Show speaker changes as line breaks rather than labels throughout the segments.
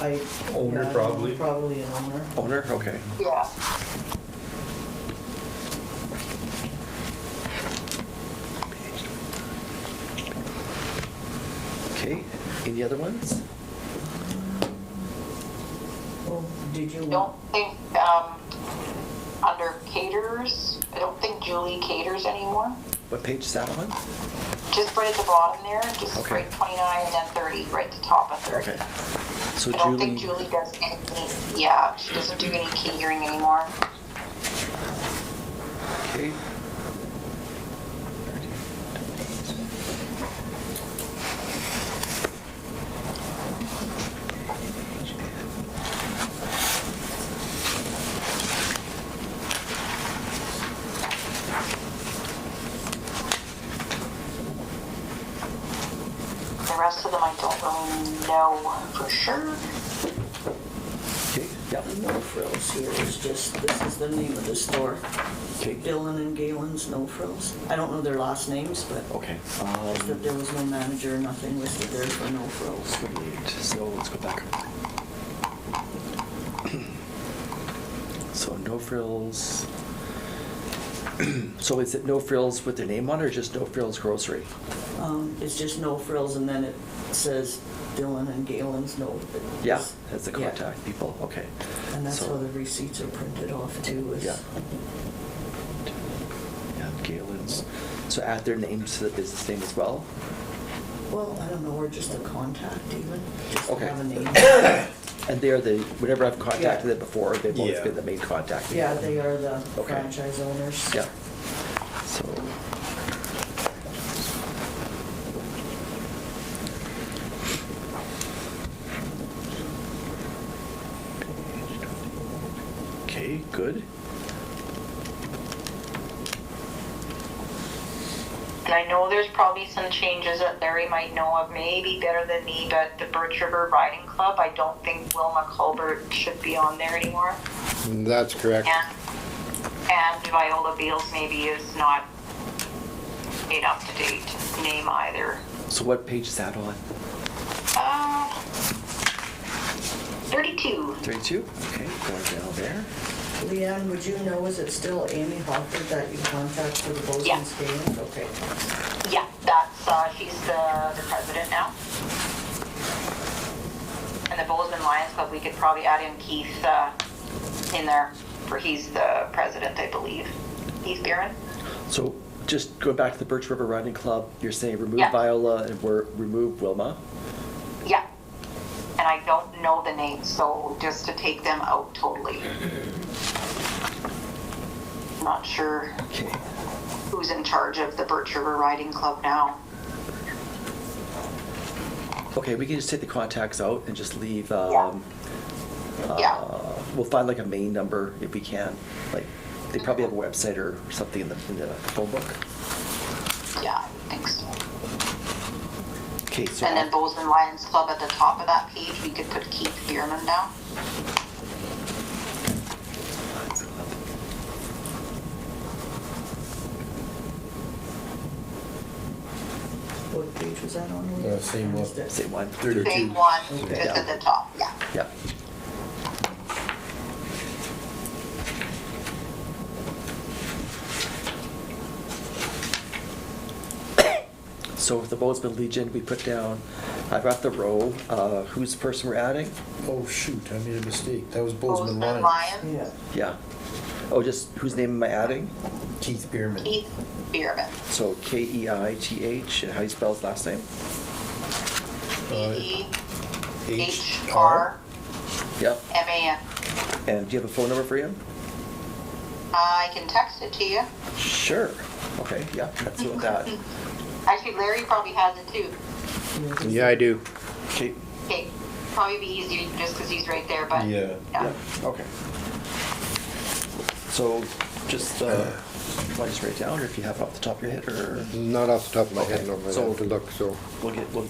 I.
Owner,
yeah,
probably.
Probably an owner.
Owner, okay.
Yeah.
Hmm. Okay, any other ones?
Well, did you?
Don't think, um, under caterers, I don't think Julie caters anymore.
What page is that on?
Just right at the bottom there, just
Okay.
right 29 and then 30, right at the top of 30.
Okay. So
I don't think
Julie,
Julie does any, yeah, she doesn't do any catering anymore.
okay.
The rest of them I don't really know for sure.
Okay, yeah,
No frills here is just, this is the name of the store.
Okay.
Dylan and Galen's No Frills. I don't know their last names, but
okay.
but
Um,
there was no manager, nothing listed there for No Frills.
Wait, So let's go back. So no frills. So is it no frills with their name on it or just no frills grocery?
Um, it's just No Frills and then it says Dylan and Galen's No. it's-
Yeah, that's the
yeah.
contact people, okay.
And that's
So-
how the receipts are printed off too is.
Yeah. Yeah, Galen's. So add their names to the business name as well?
Well, I don't know, or just a contact even. just to
Okay.
Have a name.
And they are the, whenever I've contacted
Yeah.
them before, they've always
Yeah.
been the main contact. people.
Yeah, they are the
Okay.
franchise owners.
Yeah. So. Okay, good.
And I know there's probably some changes that Larry might know of, maybe better than me, but the Birch River Riding Club, I don't think Wilma Colbert should be on there anymore.
That's correct.
And, and Viola Beals maybe is not an up-to-date name either.
So what page is that on?
Uh, 32.
Thirty-two? Okay, going down there.
Leanne, would you know, is it still Amy Hopper that you contact for the
Yeah.
Bozeman's game? Okay.
Yeah, that's, uh, she's the, the president now. And the Bozeman Lions Club, we could probably add in Keith, uh, in there, for he's the president, I believe. Keith Barron?
So just going back to the Birch River Riding Club, you're saying remove
Yeah.
Viola and we're, remove Wilma?
Yeah. And I don't know the names, so just to take them out totally. Not sure
Okay.
who's in charge of the Birch River Riding Club now.
Okay, we can just take the contacts out and just leave,
Yeah.
um,
Yeah,
uh, we'll find like a main number if we can. Like, they probably have a website or something in the, in the phone book.
yeah, I think so.
Okay, so,
And then Bozeman Lions Club at the top of that page, we could put Keith Bierman down.
What page was that on?
Uh, same one.
same one.
Thirty.
Big one,
Okay.
just at the top, yeah.
Yep. So with the Bozeman Legion, we put down, I've got the row, uh, who's the person we're adding?
Oh, shoot, I made a mistake. That was Bozeman
Bozeman
Lions.
Lions,
Yeah.
Yeah. Oh, just whose name am I adding?
Keith Bierman.
Keith Bierman.
So K E I T H, and how you spell his last name?
B E H R
Yep.
M A N.
And do you have a phone number for him?
I can text it to you.
Sure. Okay, yeah, that's what that.
Actually, Larry probably has it too.
Yeah, I do.
Okay,
Okay, probably be easier just because he's right there, but.
Yeah.
yeah, okay. So just, uh, want to just write down, or if you have it off the top of your head, or
Not off the top of my head,
Okay,
no, I
so-
have to look, so
we'll get, we'll.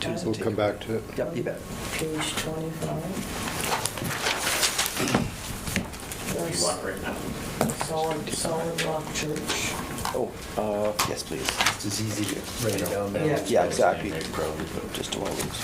do some
we'll
take-
come back to it.
Yep, you bet.
Page twenty-five. There's
right now.
Solid, solid rock church.
Oh, uh, yes, please.
It's as easy to
Right
write it
now.
down now.
Yeah.
as
Yeah,
it is now,
exactly.
right, Probably, but
Just do I lose?